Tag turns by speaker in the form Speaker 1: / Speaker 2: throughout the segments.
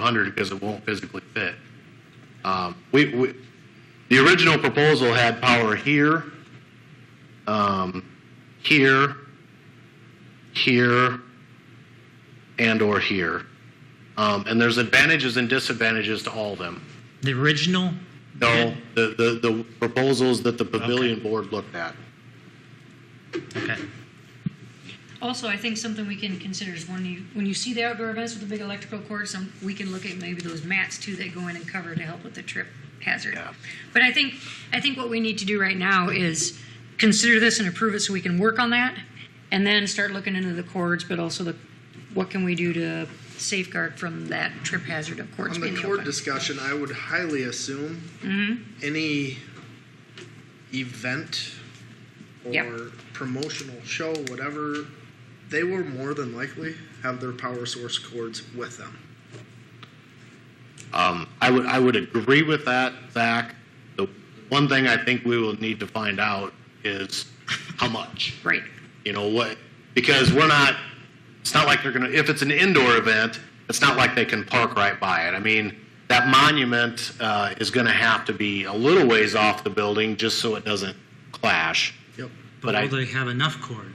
Speaker 1: hundred because it won't physically fit. Um, we, we, the original proposal had power here, um, here, here, and or here. Um, and there's advantages and disadvantages to all of them.
Speaker 2: The original?
Speaker 1: No, the, the, the proposals that the pavilion board looked at.
Speaker 2: Okay.
Speaker 3: Also, I think something we can consider is when you, when you see the outdoor events with the big electrical cords, some, we can look at maybe those mats too that go in and cover to help with the trip hazard.
Speaker 1: Yeah.
Speaker 3: But I think, I think what we need to do right now is consider this and approve it so we can work on that and then start looking into the cords, but also the, what can we do to safeguard from that trip hazard of Mm-hmm. cords
Speaker 4: On
Speaker 3: being
Speaker 4: the
Speaker 3: open?
Speaker 4: court discussion, I would highly assume any event or
Speaker 3: Yep.
Speaker 4: promotional show, whatever, they will more than likely have their power source cords with them.
Speaker 1: Um, I would, I would agree with that, Zach. The one thing I think we will need to find out is how much.
Speaker 3: Right,
Speaker 1: You know what? Because we're not. It's not like they're gonna. If it's an indoor event, it's not like they can park right by it. I mean, that monument uh, is going to have to be a little ways off the building just so it doesn't clash.
Speaker 4: Yep.
Speaker 1: But
Speaker 2: But
Speaker 1: I-
Speaker 2: will they have enough cord?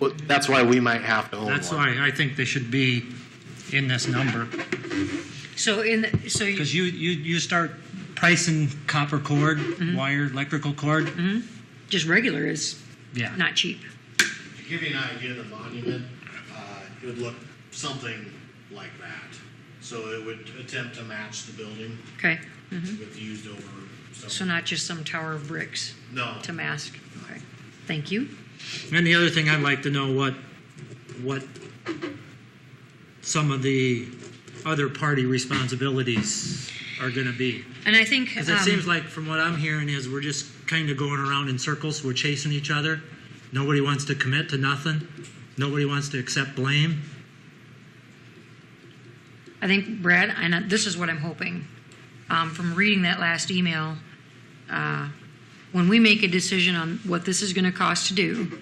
Speaker 1: Well, that's why we might have to own
Speaker 2: That's
Speaker 1: one.
Speaker 2: why I think they should be in this number.
Speaker 3: so in, the- so you,
Speaker 2: Because you, you, you start pricing copper cord, wire, electrical cord,
Speaker 3: just regular is
Speaker 2: yeah.
Speaker 3: not cheap.
Speaker 1: To give you an idea, the monument uh, it would look something like that. So it would attempt to match the building
Speaker 3: Okay,
Speaker 1: with used over.
Speaker 3: so not just some tower of bricks.
Speaker 1: no.
Speaker 3: to mask. Okay, thank you.
Speaker 2: And the other thing I'd like to know what, what some of the other party responsibilities are going to be.
Speaker 3: And I think
Speaker 2: Because it
Speaker 3: um,
Speaker 2: seems like, from what I'm hearing, is we're just kind of going around in circles. We're chasing each other. Nobody wants to commit to nothing. Nobody wants to accept blame.
Speaker 3: I think Brad, and I- this is what I'm hoping um, from reading that last email. Uh, when we make a decision on what this is going to cost to do,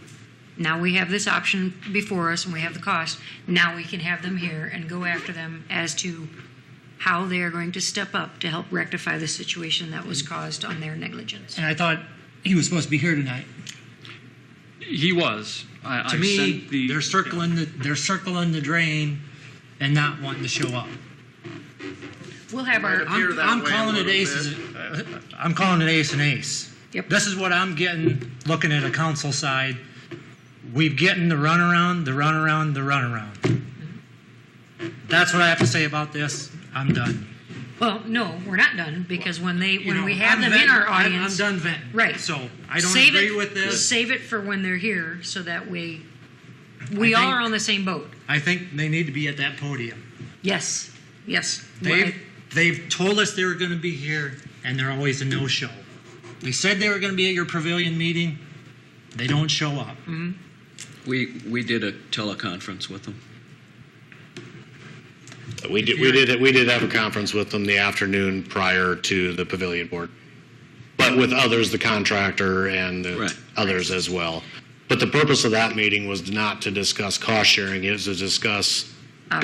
Speaker 3: now we have this option before us, and we have the cost. Now we can have them here and go after them as to how they are going to step up to help rectify the situation that was caused on their negligence.
Speaker 2: And I thought he was supposed to be here tonight.
Speaker 5: He was. I,
Speaker 2: To
Speaker 5: I
Speaker 2: me,
Speaker 5: sent the,
Speaker 2: they're circling the they're circling the drain, and not wanting to show up.
Speaker 3: We'll have
Speaker 4: Might
Speaker 3: our.
Speaker 4: appear
Speaker 2: I'm,
Speaker 4: that
Speaker 2: I'm
Speaker 4: way a
Speaker 2: calling it
Speaker 4: little
Speaker 2: ace.
Speaker 4: bit.
Speaker 2: as a- I'm calling it ace and ace.
Speaker 3: Yep.
Speaker 2: This is what I'm getting looking at a council side. We've getting the runaround, the runaround, the runaround. That's what I have to say about this. I'm done.
Speaker 3: Well, no, we're not done because when they when
Speaker 2: You know,
Speaker 3: we have
Speaker 2: I'm
Speaker 3: them in our
Speaker 2: venting. I'm-
Speaker 3: audience,
Speaker 2: I'm done venting.
Speaker 3: Right.
Speaker 2: So I don't
Speaker 3: Save
Speaker 2: agree
Speaker 3: it-
Speaker 2: with this.
Speaker 3: Save it for when they're here, so that we, we
Speaker 2: I
Speaker 3: all
Speaker 2: think-
Speaker 3: are on the same boat.
Speaker 2: I think they need to be at that podium.
Speaker 3: Yes, yes.
Speaker 2: They've,
Speaker 3: Right.
Speaker 2: they've told us they were going to be here, and they're always a no show. They said they were going to be at your pavilion meeting. They don't show up.
Speaker 3: Mm.
Speaker 5: we we did a teleconference with him.
Speaker 1: We did, we did, we did have a conference with them the afternoon prior to the pavilion board. But with others, the contractor and the
Speaker 5: Right.
Speaker 1: others as well. But the purpose of that meeting was not to discuss cost sharing, it was to discuss,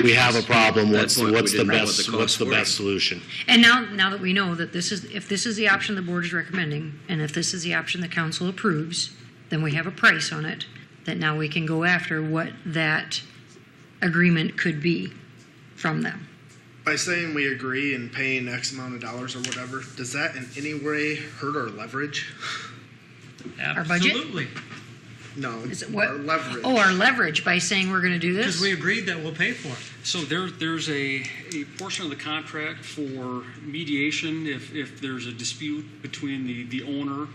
Speaker 1: we have a problem,
Speaker 5: At that
Speaker 1: what's,
Speaker 5: point, we
Speaker 1: what's the
Speaker 5: didn't know what the
Speaker 1: best,
Speaker 5: costs
Speaker 1: what's the
Speaker 5: were.
Speaker 1: best solution?
Speaker 3: And now, now that we know that this is, if this is the option the board is recommending, and if this is the option the council approves, then we have a price on it, that now we can go after what that agreement could be from them.
Speaker 4: By saying we agree and paying X amount of dollars or whatever, does that in any way hurt our leverage?
Speaker 3: Our budget?
Speaker 2: Absolutely.
Speaker 4: No,
Speaker 3: Is it what?
Speaker 4: our leverage.
Speaker 3: Oh, our leverage by saying we're gonna do
Speaker 2: Because
Speaker 3: this?
Speaker 2: we agreed that we'll pay for it.
Speaker 5: So there there's a, a portion of the contract for mediation if, if there's a dispute between the, the owner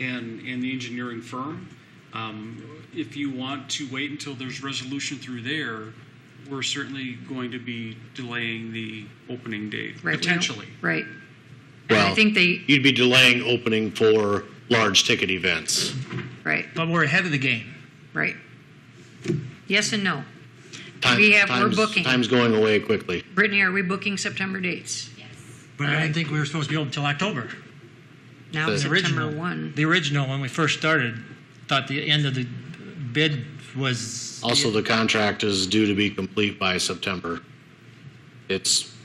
Speaker 5: and and the engineering firm. Um, if you want to wait until there's resolution through there, we're certainly going to be delaying the opening date
Speaker 3: Right, we don't-
Speaker 5: potentially.
Speaker 3: Right. And I
Speaker 1: Well,
Speaker 3: think they,
Speaker 1: you'd be delaying opening for large ticket events.
Speaker 3: right,
Speaker 2: But we're ahead of the game.
Speaker 3: right. Yes and no.
Speaker 1: Time-
Speaker 3: We have- we're
Speaker 1: time's-
Speaker 3: booking.
Speaker 1: Time's going away quickly.
Speaker 3: Brittany, are we booking September dates?
Speaker 2: But I didn't think we were supposed to be open until October.
Speaker 3: Now
Speaker 1: The
Speaker 2: The
Speaker 3: September
Speaker 2: original
Speaker 3: one.
Speaker 2: The original, when we first started, thought the end of the bid was
Speaker 1: Also, the contract is due to be complete by September. It's